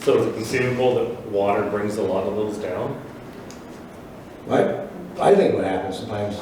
So is it conceivable that water brings a lot of those down? I, I think what happens sometimes,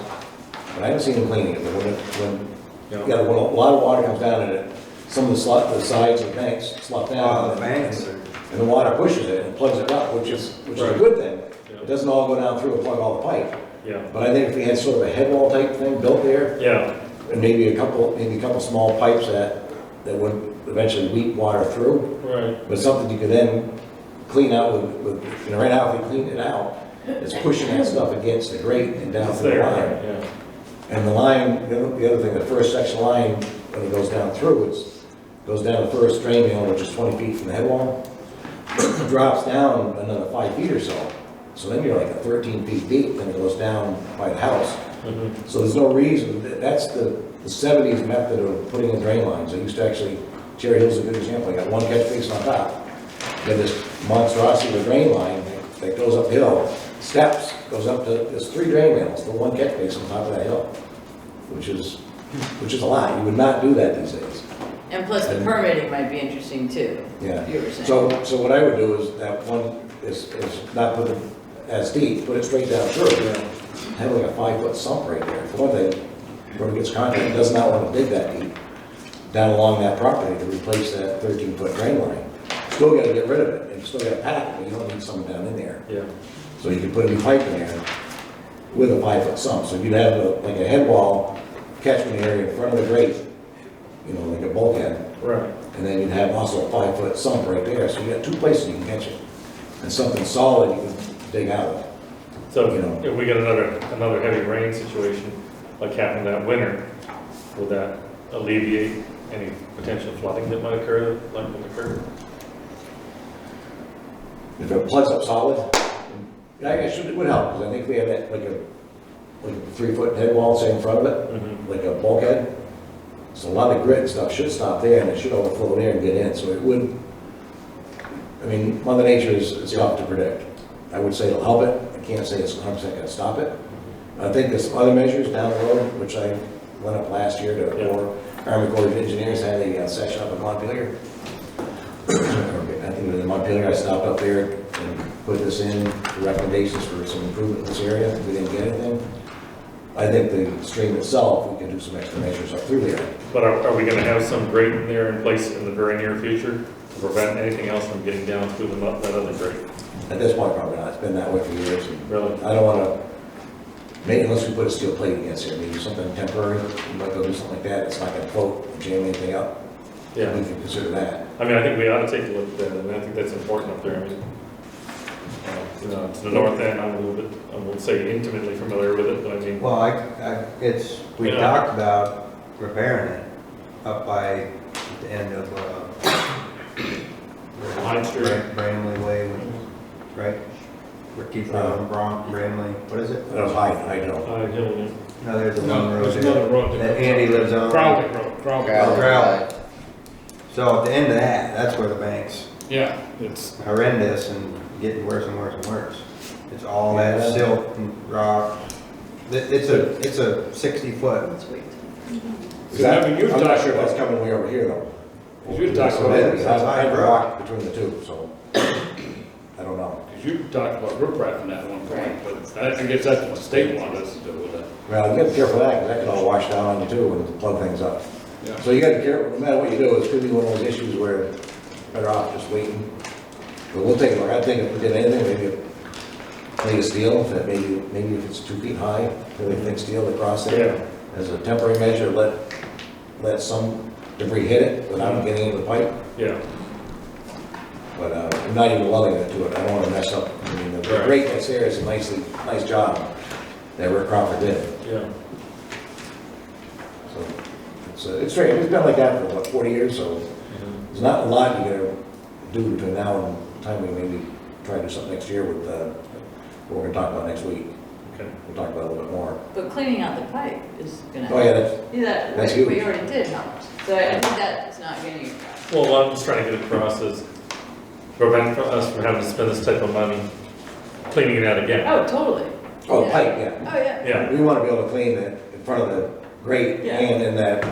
but I haven't seen them cleaning it, but when, it- when, You know? yeah, when a lot of water comes down and it, some of the slot, the sides of the banks slot down. Uh, the banks are, And the water pushes it and plugs it up, which is, which is a good thing. It doesn't all go down through and plug all the pipe. Yeah, But I think if we had sort of a head wall type thing built there, yeah, and maybe a couple, maybe a couple small pipes that, that would eventually weep water through, right, but something you could then clean out with, with, you know, right now, if we clean it out, it's pushing that stuff against the grate and down it's through the there, line. yeah, And the line, the other- the other thing, the first section line, when it goes down through, it's, goes down the first drain mill, which is twenty feet from the head wall, drops down another five feet or so. So then you're like thirteen feet deep, then it goes down by the house. mhm, So there's no reason, that- that's the seventies method of putting in drain lines. I used to actually, Cherry Hill's a good example, you got one catch basin on top. You have this monstrosity of a drain line that- that goes uphill, steps, goes up to, there's three drain mills, the one catch basin on top of that hill, which is, which is a lot. You would not do that these days. And plus the permitting might be interesting too. Yeah. You were saying. So, so what I would do is that one is, is not put it as deep, put it straight down through. Have like a five-foot sump right there. For one thing, whoever gets contract does not want to dig that deep down along that property to replace that thirteen-foot drain line. Still gotta get rid of it, and you still gotta pack it, but you don't need someone down in there. yeah, So you could put a new pipe in there with a five-foot sump, so you'd have a- like a head wall catchment area in front of the grate, you know, like a bulkhead. right, And then you'd have also a five-foot sump right there, so you got two places you can catch it. And something solid you can dig out of. so You know. if we get another, another heavy rain situation like happened that winter, would that alleviate any potential flooding that might occur, like would occur? If it plugs up solid, I guess it would help, because I think we have that, like a, like a three-foot head wall, say, in front of it, Mhm, like a bulkhead. So a lot of grit and stuff should stop there, and it should overflow there and get in, so it would, I mean, Mother Nature is, is tough to predict. I would say it'll help it, I can't say it's 100% gonna stop it. I think there's some other measures down the road, which I went up last year Yeah. to, or Army Corps of Engineers had a uh, session up in Montpelier. I think it was in Montpelier, I stopped up there and put this in, the recommendations for some improvement in this area, we didn't get anything. I think the stream itself, we can do some extra measures up through there. But are, are we gonna have some grate in there in place in the very near future to prevent anything else from getting down through the, mu- that other grate? At this point, probably not, it's been that way for years. and Really? I don't wanna, maybe unless we put a steel plate against it, maybe something temporary, we might go do something like that, it's not gonna float, jam anything up. Yeah. We can consider that. I mean, I think we ought to take a look at that, and I think that's important up there, I mean, uh, you know, to the north end, I'm a little bit, I won't say intimately familiar with it, but I mean, well, I, I, it's, we Yeah. talked about repairing it up by the end of, uh. Line Street. Bram- Bramley Way, right? Ricky Brown, Bron, Bramley, what is it? That was high, I know. I don't know. No, there's the one No, road there's another there road that there. Andy lives on. Crowley Road, Crowley. Oh, Crowley. So at the end of that, that's where the bank's Yeah, it's, horrendous and getting worse and worse and worse. It's all that Yeah. silt and rock. It- It's a, it's a sixty foot Let's wait. Is that- I mean, you've I'm not talked sure if that's about- coming way over here though. you've talked So about- maybe, that's I I high rock. rock between the two, so I don't know. because you talked about riprap in that one point, but I I guess that's what state wanted us to do with it. Well, you gotta be careful of that, 'cause that can all wash down on you too and plug things up. Yeah. So you gotta be careful, no matter what you do, it's gonna be one of those issues where better off just waiting. But we'll take a look, I think if we did anything, maybe a plate of steel, if that maybe, maybe if it's two feet high, really thick steel across it. Yeah, As a temporary measure, let, let some debris hit it without getting into the pipe. yeah, But uh, I'm not even loving it to it, I don't want to mess up, I mean, the the Right. grate that's there is a nicely, nice job that Rick Crawford did, yeah, so. It's, uh, it's great, it's been like that for what, 40 years, so mhm, there's not a lot you gotta do between now and the time we maybe try to do something next year with, uh, what we're gonna talk about next week, okay. we'll talk about it a little bit more. But cleaning out the pipe is gonna. Oh, yeah, that's, Yeah, that- That's we- huge. we already did help. So I I think that is not getting across. Well, what I'm just trying to get across is prevent us from having to spend this type of money cleaning it out again. Oh, totally. oh, the Yeah. pipe, yeah. Oh, yeah. Yeah, We want to be able to clean it in front of the grate Yeah. and in that,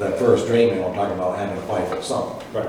that first drain, and I'm talking about having a five-foot sump. right.